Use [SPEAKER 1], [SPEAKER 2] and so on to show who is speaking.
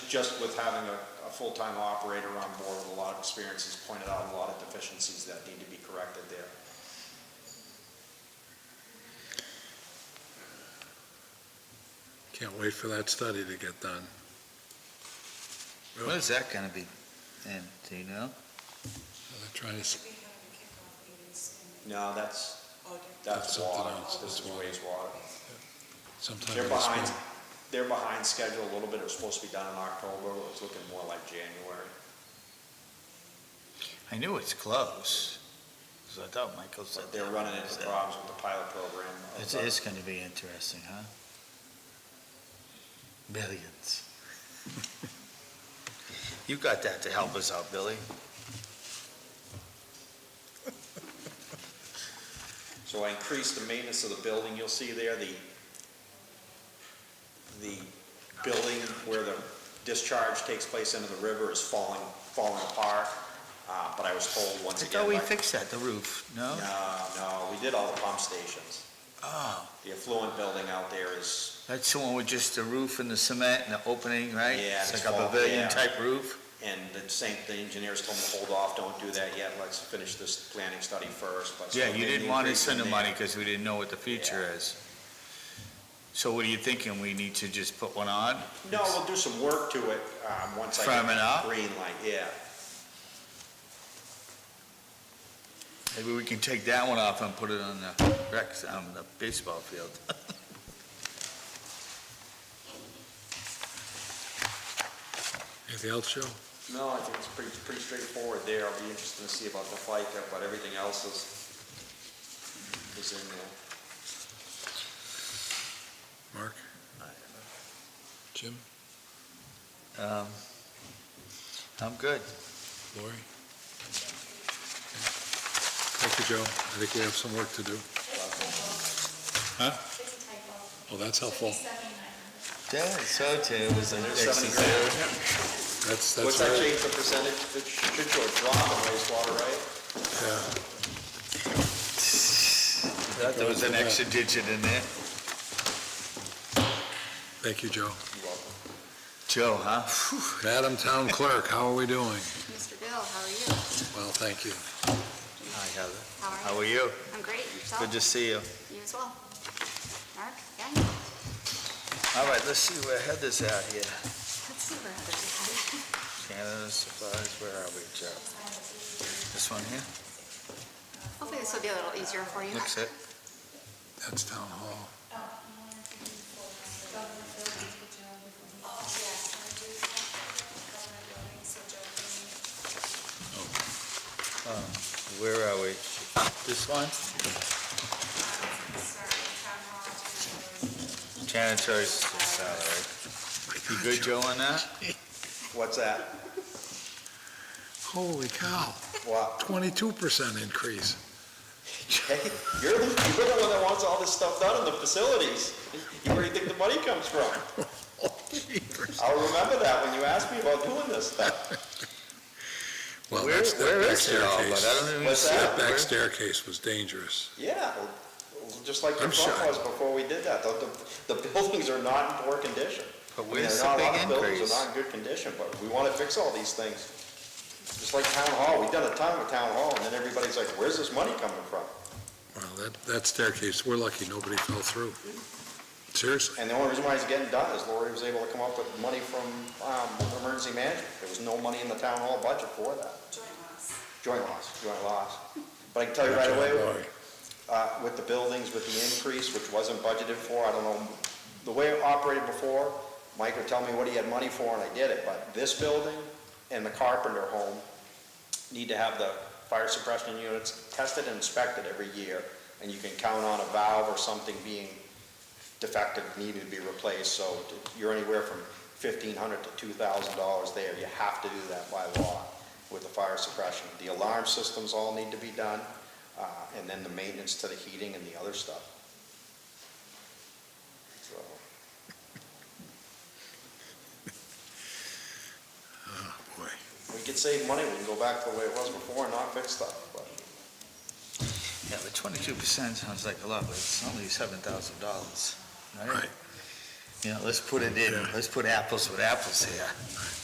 [SPEAKER 1] just with having a, a full-time operator on board with a lot of experience, he's pointed out a lot of deficiencies that need to be corrected there.
[SPEAKER 2] Can't wait for that study to get done.
[SPEAKER 3] When is that gonna be? And, do you know?
[SPEAKER 2] They're trying to, s-
[SPEAKER 4] We have kickoff meetings in
[SPEAKER 1] No, that's,
[SPEAKER 4] August.
[SPEAKER 1] that's
[SPEAKER 2] That's something
[SPEAKER 1] water,
[SPEAKER 2] else,
[SPEAKER 1] this
[SPEAKER 2] that's
[SPEAKER 1] is
[SPEAKER 2] water.
[SPEAKER 1] wastewater.
[SPEAKER 2] sometime
[SPEAKER 1] They're
[SPEAKER 2] in the spring.
[SPEAKER 1] behind, they're behind schedule a little bit, it was supposed to be done in October, but it was looking more like January.
[SPEAKER 3] I knew it's close, so I thought Michael said.
[SPEAKER 1] But they're running into problems with the pilot program. of
[SPEAKER 3] It's,
[SPEAKER 1] the-
[SPEAKER 3] it's gonna be interesting, huh? Millions. You got that to help us out, Billy.
[SPEAKER 1] So I increased the maintenance of the building, you'll see there, the, the building where the discharge takes place into the river is falling, falling apart, uh, but I was told
[SPEAKER 3] I
[SPEAKER 1] once again.
[SPEAKER 3] thought we
[SPEAKER 1] by-
[SPEAKER 3] fixed that, the roof, no?
[SPEAKER 1] No, no, we did all the pump stations.
[SPEAKER 3] Oh,
[SPEAKER 1] The affluent building out there is,
[SPEAKER 3] that's the one with just the roof and the cement and the opening, right?
[SPEAKER 1] Yeah,
[SPEAKER 3] It's
[SPEAKER 1] it's
[SPEAKER 3] like a
[SPEAKER 1] small, yeah.
[SPEAKER 3] pavilion type roof?
[SPEAKER 1] and the same, the engineers told me, hold off, don't do that yet, let's finish this planning study first, but. so
[SPEAKER 3] Yeah,
[SPEAKER 1] we
[SPEAKER 3] you
[SPEAKER 1] made
[SPEAKER 3] didn't
[SPEAKER 1] the
[SPEAKER 3] want to
[SPEAKER 1] increase in
[SPEAKER 3] send the
[SPEAKER 1] there.
[SPEAKER 3] money because we didn't know what the future is. So what are you thinking? We need to just put one on?
[SPEAKER 1] No, we'll do some work to it, um, once I.
[SPEAKER 3] Firm
[SPEAKER 1] get
[SPEAKER 3] it up?
[SPEAKER 1] Green light, yeah.
[SPEAKER 3] Maybe we can take that one off and put it on the rec, on the baseball field.
[SPEAKER 2] Anything else, Joe?
[SPEAKER 1] No, I think it's pretty, pretty straightforward there. I'll be interested to see about the FICA, but everything else is, is in there.
[SPEAKER 2] Mark? Jim?
[SPEAKER 3] Um, I'm good.
[SPEAKER 2] Lori? Thank you, Joe. I think we have some work to do. Huh?
[SPEAKER 4] It's a typo.
[SPEAKER 2] Well, Oh, that's helpful.
[SPEAKER 4] Should be 79.
[SPEAKER 3] Yeah, so too, it was an
[SPEAKER 1] There's 70 grand.
[SPEAKER 2] That's,
[SPEAKER 1] What's
[SPEAKER 2] that's
[SPEAKER 1] that
[SPEAKER 2] very,
[SPEAKER 1] change the percentage? It should show a drop in wastewater, right?
[SPEAKER 2] yeah.
[SPEAKER 3] There was an extra digit in there.
[SPEAKER 2] Thank you, Joe.
[SPEAKER 3] Joe, huh?
[SPEAKER 2] Madam Town Clerk, how are we doing?
[SPEAKER 5] Mr. Bill, how are you?
[SPEAKER 2] Well, thank you.
[SPEAKER 3] Hi, Heather.
[SPEAKER 5] How
[SPEAKER 3] How
[SPEAKER 5] are
[SPEAKER 3] are
[SPEAKER 5] you?
[SPEAKER 3] you?
[SPEAKER 5] I'm great, yourself?
[SPEAKER 3] Good to see you.
[SPEAKER 5] You as well? Mark, yeah? Let's
[SPEAKER 3] All right, let's see where Heather's at here.
[SPEAKER 5] see where others
[SPEAKER 3] Canada supplies, where are we, Joe? This one here?
[SPEAKER 5] are. Hopefully this will be a little easier for you.
[SPEAKER 3] Looks it.
[SPEAKER 2] That's Town Hall.
[SPEAKER 3] Where are we? This one? Janitor's salary. You good, Joe, on that?
[SPEAKER 1] What's that?
[SPEAKER 2] Holy cow,
[SPEAKER 1] What?
[SPEAKER 2] twenty-two percent increase.
[SPEAKER 1] Jay, You're, the- you're the one that wants all this stuff done in the facilities. You where you think the money comes from. I'll remember that when you ask me about doing this stuff.
[SPEAKER 2] Well,
[SPEAKER 3] Where,
[SPEAKER 2] that's,
[SPEAKER 3] where
[SPEAKER 2] that back
[SPEAKER 3] is it all, but I
[SPEAKER 2] staircase.
[SPEAKER 3] don't even
[SPEAKER 1] What's
[SPEAKER 3] see it.
[SPEAKER 1] that?
[SPEAKER 2] That
[SPEAKER 3] Where-
[SPEAKER 2] back staircase was dangerous.
[SPEAKER 1] Yeah, well, just like the
[SPEAKER 2] I'm shy.
[SPEAKER 1] front was before we did that. The, the- the buildings are not in poor condition.
[SPEAKER 3] But
[SPEAKER 1] I mean,
[SPEAKER 3] where's
[SPEAKER 1] there are
[SPEAKER 3] the
[SPEAKER 1] not a lot
[SPEAKER 3] big
[SPEAKER 1] of Buildings
[SPEAKER 3] increase?
[SPEAKER 1] are not in good condition, but we want to fix all these things. Just like town hall, we've done a ton with town hall, and then everybody's like, where's this money coming from?
[SPEAKER 2] Well, that, that staircase, we're lucky nobody fell through. Seriously,
[SPEAKER 1] And the only reason why it's getting done is Lori was able to come up with money from, um, emergency management. There was no money in the town hall budget for that.
[SPEAKER 4] Joint loss.
[SPEAKER 1] Joint loss, joint loss. But I can tell you right
[SPEAKER 2] Joint
[SPEAKER 1] away,
[SPEAKER 2] loss.
[SPEAKER 1] uh, with the buildings, with the increase, which wasn't budgeted for, I don't know, the way it operated before, Mike would tell me what he had money for, and I did it, but this building and the carpenter home need to have the fire suppression units tested and inspected every year, and you can count on a valve or something being defective, needing to be replaced, so you're anywhere from fifteen hundred to two thousand dollars there, you have to do that by law with the fire suppression. The alarm systems all need to be done, uh, and then the maintenance to the heating and the other stuff. So,
[SPEAKER 2] boy.
[SPEAKER 1] we could save money, we can go back to the way it was before and not fix stuff, but
[SPEAKER 3] Yeah, but twenty-two percent sounds like a lot, but it's only seven thousand dollars, right?
[SPEAKER 2] Right.
[SPEAKER 3] Yeah, let's put it in, let's put apples with apples here.